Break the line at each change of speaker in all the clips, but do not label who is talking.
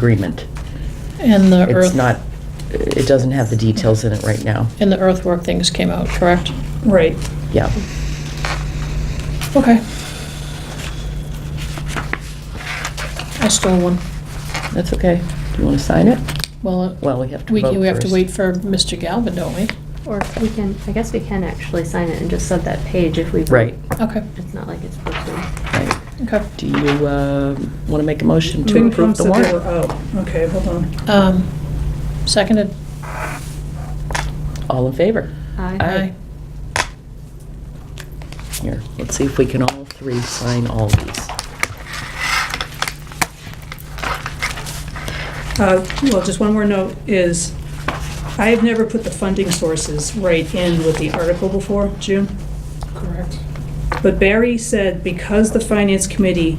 agreement.
And the earth.
It's not, it doesn't have the details in it right now.
And the earthwork things came out, correct?
Right.
Yeah.
Okay. I stole one.
That's okay. Do you want to sign it?
Well, uh,
Well, we have to
we,
vote
we have to
first.
wait for Mr. Galvin, don't we?
Or we can, I guess we can actually sign it and just sub that page if we. vote.
Right.
Okay,
It's not like it's posted.
Right.
okay.
Do you want to make a motion to
FinCom
approve the
said they
warrant?
were out. Okay, hold on.
Um, seconded.
All in favor?
Aye.
Aye. Here, let's see if we can all three sign all these.
Uh, Well, just one more note is, I have never put the funding sources right in with the article before, June.
Correct.
But Barry said because the finance committee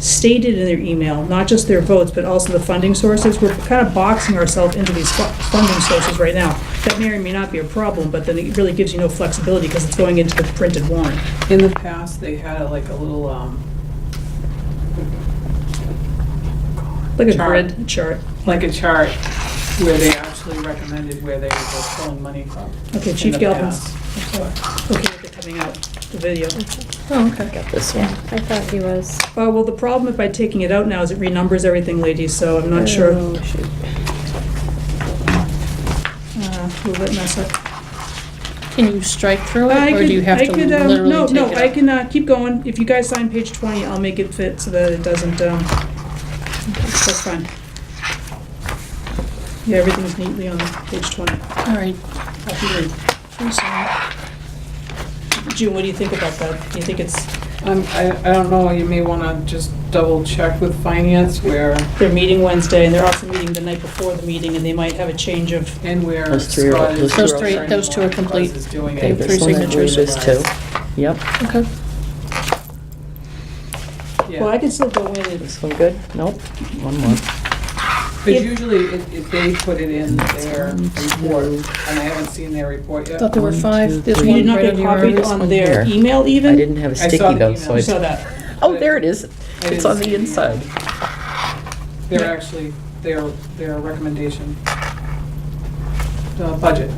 stated in their email, not just their votes, but also the funding sources, we're kind of boxing ourselves into these fu- funding sources right now. That may or may not be a problem, but then it really gives you no flexibility because it's going into the printed warrant.
In the past, they had a, like a little, um,
Like a
Chart.
grid chart.
like a chart where they actually recommended where they were pulling money from.
Okay,
in
Chief
the
Galvin's-
past.
Okay, with it coming out, the video.
Oh, okay.
Got this
Yeah,
one.
I thought he was.
Uh, well, the problem by taking it out now is it renumbers everything, ladies, so I'm not sure.
Oh, shoot.
Uh, Will that mess up?
Can you strike through
I
it, or
could-
do you have
I
to
could, um,
literally
no,
take it
No, I
out?
can, uh, keep going. If you guys sign page twenty, I'll make it fit so that it doesn't, um, that's fine. Yeah, everything's neatly on page twenty.
All right.
Happy to read.
Please sign.
June, what do you think about that? Do you think it's,
Um, I, I don't know, you may wanna just double check with finance where,
they're meeting Wednesday and they're also meeting the night before the meeting and they might have a change of,
and where
Those three are-
Scott is.
those
three are- Those three- those two are complete.
Scott is doing
Okay,
it.
this one, I believe, is two. Yep.
Okay.
well, I
Yeah,
could still go in and
This one good? Nope. One more.
but usually it, it, they put it in their report, and I haven't seen their report yet.
Thought there were
One, two,
five. There's
three.
You
one
did not
right
get
under your
copied
arm.
this
on
one
their
here.
email even?
I didn't have a
saw
sticky
the
though, so
email.
You
I...
saw that.
Oh, there it is.
I
It's on
didn't
the
see
inside.
They're actually, their, their recommendation. The budget.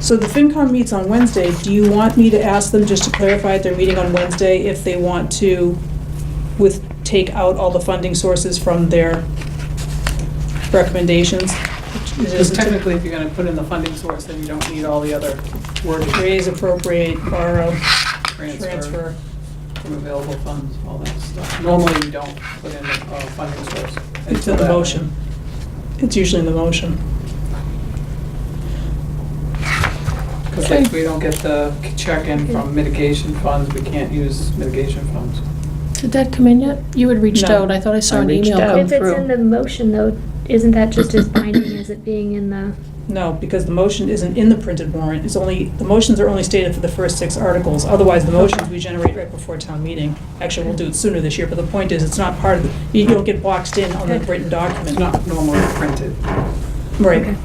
So the FinCom meets on Wednesday. Do you want me to ask them just to clarify at their meeting on Wednesday if they want to with, take out all the funding sources from their recommendations? It
Because
isn't-
technically, if you're gonna put in the funding source, then you don't need all the other wording,
Raise, appropriate, borrow,
transfer
transfer.
from available funds, all that stuff. Normally, you don't put in a funding source.
It's in
until
the
that-
motion. It's usually in the motion.
Because if we don't get the check-in from mitigation funds, we can't use mitigation funds.
Did that come in yet? You had reached
No.
out. I thought I saw
I
an
reached
email
out.
come
If it's
through.
in the motion though, isn't that just as binding as it being in the?
No, because the motion isn't in the printed warrant. It's only, the motions are only stated for the first six articles. Otherwise, the motions we generate right before town meeting. Actually, we'll do it sooner this year, but the point is, it's not part of, the you don't get boxed in on the written
It's
document.
not normally printed.
Right.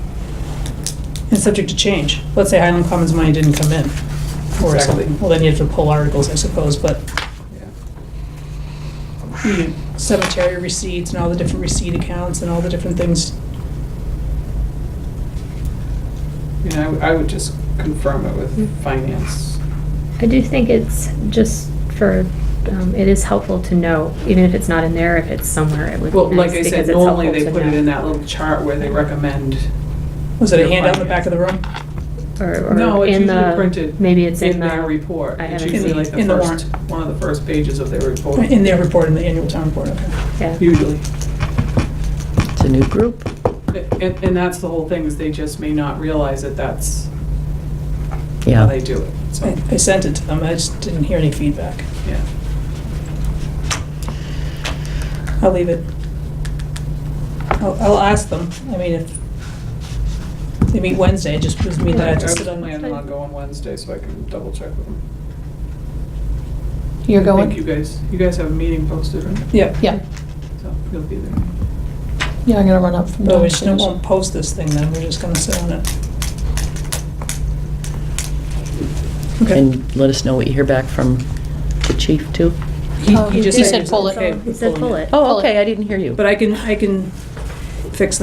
It's subject to change. Let's say Highland Commons money didn't come in or
Exactly.
something. Well, then you have to pull articles, I suppose, but
Yeah.
you- cemetery receipts and all the different receipt accounts and all the different things.
You know, I would- I would just confirm it
Hmm.
with finance.
I do think it's just for, um, it is helpful to know, even if it's not in there, if it's somewhere, it would
Well,
be
like
nice
I
because
said,
it's
normally
helpful
they
to
put it in
know.
that little chart where they recommend.
Was it a
Your
handout in the back of the room?
Or,
No,
or
it's
in
usually
the,
printed.
maybe it's in
In their
the,
report.
I
It's
haven't
usually
seen
like
it.
the
In the
first, one of the first pages of their report,
In their report, in the annual town report, okay.
yeah.
usually.
It's a new group.
And, and that's the whole thing, is they just may not realize that that's how
Yeah.
they do it, so,
I I sent it to them, I just didn't hear any feedback.
yeah.
I'll leave it. I'll, I'll ask them, I mean, if they meet Wednesday, it just gives me that I have to sit on
I
my
was planning on going Wednesday, so I can double check with them.
You're
Thank you
going?
guys, you guys have a meeting posted, right?
Yep,
Yeah.
So, you'll be there.
Yeah, I'm gonna run up from
but we just
downstairs.
won't post this thing then, we're just gonna sit on it. Okay.
And let us know what you hear back from the chief too.
Oh,
just
he said
was
pull it.
okay
He
with
said
pulling
pull it.
Oh,
Pull it.
okay, I didn't hear you.
But I can, I can fix